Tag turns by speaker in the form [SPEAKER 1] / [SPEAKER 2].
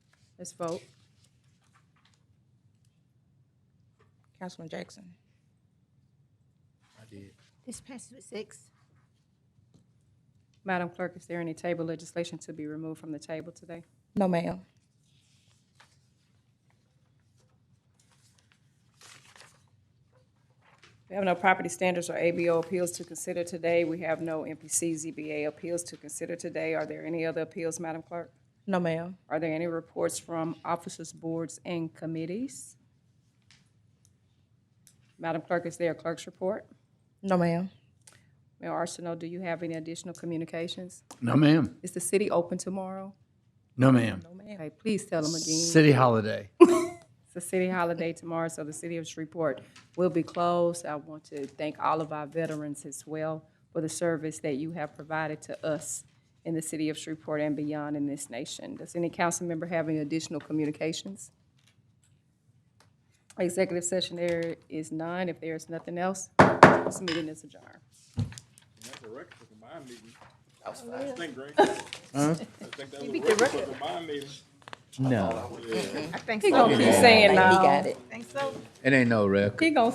[SPEAKER 1] Let's vote. Councilman Jackson.
[SPEAKER 2] I did.
[SPEAKER 3] This passes with six.
[SPEAKER 4] Madam Clerk, is there any table legislation to be removed from the table today?
[SPEAKER 1] No, ma'am.
[SPEAKER 4] We have no property standards or ABO appeals to consider today. We have no MPC ZBA appeals to consider today. Are there any other appeals, Madam Clerk?
[SPEAKER 1] No, ma'am.
[SPEAKER 4] Are there any reports from officers, boards, and committees? Madam Clerk, is there a clerk's report?
[SPEAKER 1] No, ma'am.
[SPEAKER 4] Mayor Arsenault, do you have any additional communications?
[SPEAKER 2] No, ma'am.
[SPEAKER 4] Is the city open tomorrow?
[SPEAKER 2] No, ma'am.
[SPEAKER 4] Okay, please tell them again.
[SPEAKER 2] City holiday.
[SPEAKER 4] It's a city holiday tomorrow, so the city of Shreveport will be closed. I want to thank all of our veterans as well for the service that you have provided to us in the city of Shreveport and beyond in this nation. Does any council member have any additional communications? Executive session there is none. If there is nothing else, this meeting is adjourned.
[SPEAKER 5] That's a record for the mind meeting. I just think, Greg. I think that was a record for the mind meeting.
[SPEAKER 6] No.
[SPEAKER 1] I think
[SPEAKER 4] He gonna keep saying
[SPEAKER 1] He
[SPEAKER 4] no.
[SPEAKER 1] got it.
[SPEAKER 6] It ain't no record.
[SPEAKER 4] He gonna